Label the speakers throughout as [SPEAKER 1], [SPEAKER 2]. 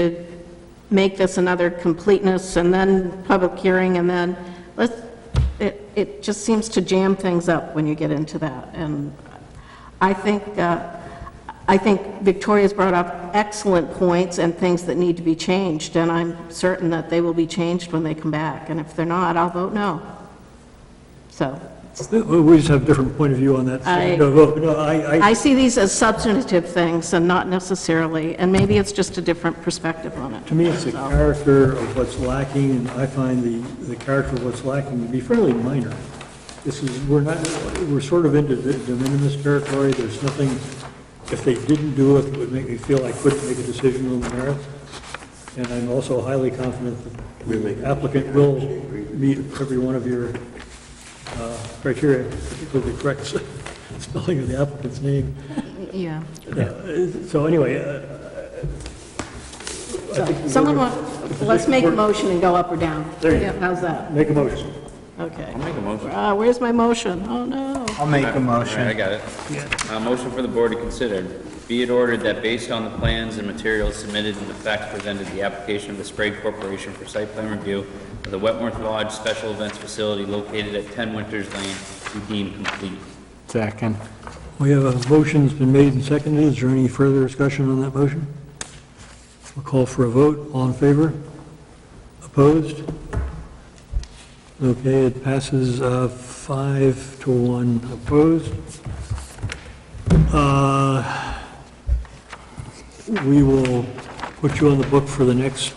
[SPEAKER 1] to make this another completeness, and then public hearing, and then, let's, it, it just seems to jam things up when you get into that, and I think, uh, I think Victoria's brought up excellent points and things that need to be changed, and I'm certain that they will be changed when they come back, and if they're not, I'll vote no. So,
[SPEAKER 2] We we just have a different point of view on that. so
[SPEAKER 1] I-
[SPEAKER 2] no, no, no, I, I,
[SPEAKER 1] I see these as substantive things and not necessarily, and maybe it's just a different perspective on it.
[SPEAKER 2] to me, it's the character of what's lacking, and I find the, the character of what's lacking to be fairly minor. This is, we're not, we're sort of into de de minimis territory, there's nothing, if they didn't do it, it would make me feel I couldn't make a decision on the merits. And I'm also highly confident that the applicant will meet every one of your uh, criteria, particularly the correct spelling of the applicant's name.
[SPEAKER 1] Yeah.
[SPEAKER 2] Yeah, So anyway, uh, I think we
[SPEAKER 1] Someone want, let's make a motion and go up or down.
[SPEAKER 2] There you go.
[SPEAKER 1] How's that?
[SPEAKER 2] make a motion.
[SPEAKER 1] Okay.
[SPEAKER 3] Make a motion.
[SPEAKER 1] Uh, where's my motion? Oh, no.
[SPEAKER 4] I'll make a
[SPEAKER 3] All right, I
[SPEAKER 4] motion.
[SPEAKER 3] got it. Uh, motion for the board to consider, be it ordered that based on the plans and materials submitted and the facts presented, the application of the Sprague Corporation for site plan review of the Wetmore Lodge Special Events Facility located at 10 Winters Lane be deemed complete.
[SPEAKER 4] Second.
[SPEAKER 2] We have a motion that's been made and seconded. Is there any further discussion on that motion? We'll call for a vote. All in favor? Opposed? Okay, it passes uh, five to one opposed. Uh, We will put you on the book for the next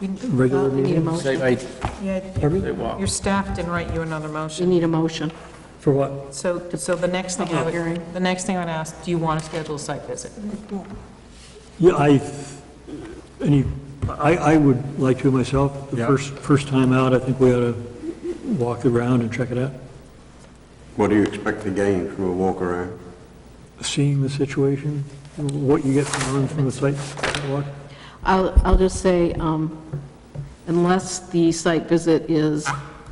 [SPEAKER 5] You-
[SPEAKER 2] regular
[SPEAKER 1] Well, Uh, we need a
[SPEAKER 2] meeting.
[SPEAKER 1] motion.
[SPEAKER 5] Uh, yeah,
[SPEAKER 2] Pardon?
[SPEAKER 5] Your staff didn't write you another
[SPEAKER 1] We
[SPEAKER 5] motion.
[SPEAKER 1] need a motion.
[SPEAKER 2] For what?
[SPEAKER 5] So, so the next thing I
[SPEAKER 1] Public hearing.
[SPEAKER 5] would, the next thing I would ask, do you want to schedule a site visit?
[SPEAKER 2] Yeah, I, any, I, I would like to myself, the
[SPEAKER 6] Yeah.
[SPEAKER 2] first, first time out, I think we ought to walk around and check it out,
[SPEAKER 7] What do you expect to gain from a walk around?
[SPEAKER 2] seeing the situation, what you get from, from the site walk.
[SPEAKER 1] I'll, I'll just say, um, unless the site visit is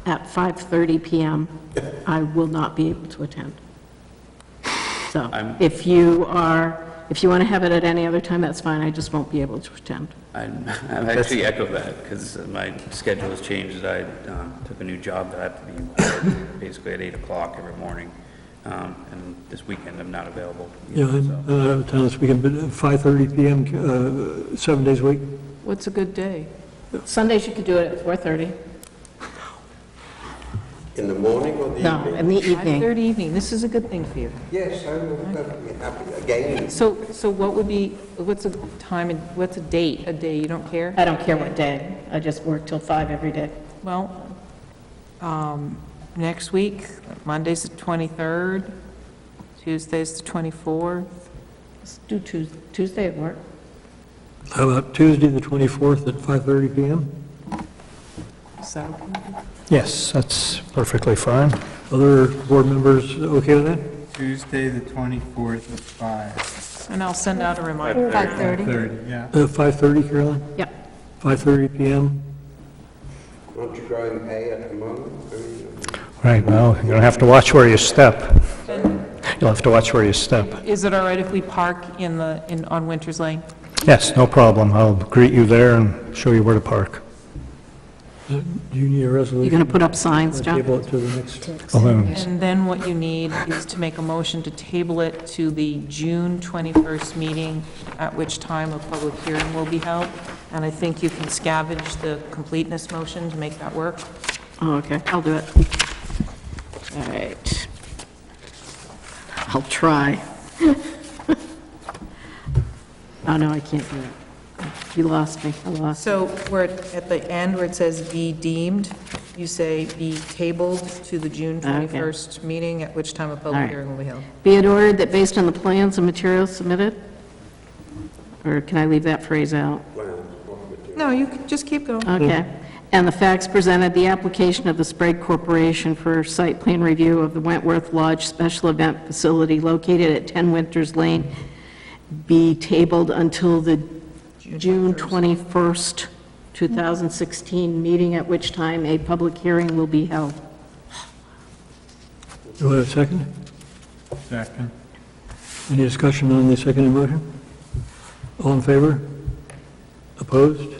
[SPEAKER 1] at 5:30 PM, I will not be able to attend. So
[SPEAKER 3] I'm-
[SPEAKER 1] if you are, if you want to have it at any other time, that's fine, I just won't be able to attend.
[SPEAKER 3] I'm, I'm actually echo that, because my schedule has changed, I um, took a new job that I have to be in court basically at 8 o'clock every morning, um, and this weekend I'm not available.
[SPEAKER 2] Yeah,
[SPEAKER 3] either,
[SPEAKER 2] I'm
[SPEAKER 3] so.
[SPEAKER 2] I'm out of town this weekend, but 5:30 PM, uh, seven days a week,
[SPEAKER 5] What's a good day?
[SPEAKER 1] Sundays, you could do it at 4:30.
[SPEAKER 7] In the morning or the
[SPEAKER 1] No,
[SPEAKER 7] evening?
[SPEAKER 1] in the evening.
[SPEAKER 5] 5:30 evening, this is a good thing for you.
[SPEAKER 7] Yes, I will be happy again.
[SPEAKER 5] So, so what would be, what's a time, and what's a date, a day, you don't care?
[SPEAKER 1] I don't care what day, I just work till 5 every day.
[SPEAKER 5] Well, um, next week, Monday's the 23rd, Tuesday's the 24th.
[SPEAKER 1] Let's do Tues- Tuesday at work.
[SPEAKER 2] how about Tuesday, the 24th at 5:30 PM?
[SPEAKER 5] Is that okay?
[SPEAKER 6] Yes, that's perfectly fine.
[SPEAKER 2] Other board members okay with that?
[SPEAKER 8] Tuesday, the 24th at 5.
[SPEAKER 5] And I'll send out a reminder.
[SPEAKER 8] 30, yeah.
[SPEAKER 2] Uh, 5:30, Caroline?
[SPEAKER 1] Yep.
[SPEAKER 2] 5:30 PM?
[SPEAKER 7] Aren't you growing hay at the moment? I mean,
[SPEAKER 6] Right, well, you're going to have to watch where you step. You'll have to watch where you step.
[SPEAKER 5] Is it all right if we park in the, in, on Winters Lane?
[SPEAKER 6] Yes, no problem. I'll greet you there and show you where to park.
[SPEAKER 2] Uh, Do you need a resolution?
[SPEAKER 1] You're going to put up signs,
[SPEAKER 2] I'll
[SPEAKER 1] John?
[SPEAKER 2] Table it to the next.
[SPEAKER 6] Well, then,
[SPEAKER 5] And then what you need is to make a motion to table it to the June 21st meeting, at which time a public hearing will be held. And I think you can scavenge the completeness motion to make that work.
[SPEAKER 1] Oh, okay, I'll do it. All right. I'll try. Oh, no, I can't do it. You lost me, I lost.
[SPEAKER 5] So we're at at the end where it says be deemed, you say be tabled to the June
[SPEAKER 1] Ah, Okay.
[SPEAKER 5] 21st meeting, at which time a
[SPEAKER 1] All
[SPEAKER 5] public
[SPEAKER 1] right.
[SPEAKER 5] hearing will be held.
[SPEAKER 1] Be it ordered that based on the plans and materials submitted? Or can I leave that phrase out?
[SPEAKER 5] No, you can just keep going.
[SPEAKER 1] Okay. And the facts presented, the application of the Sprague Corporation for site plan review of the Wentworth Lodge Special Event Facility located at 10 Winters Lane be tabled until the June 21st, 2016 meeting, at which time a public hearing will be held.
[SPEAKER 2] Do I have a second?
[SPEAKER 8] Second.
[SPEAKER 2] Any discussion on the second motion? All in favor? Opposed?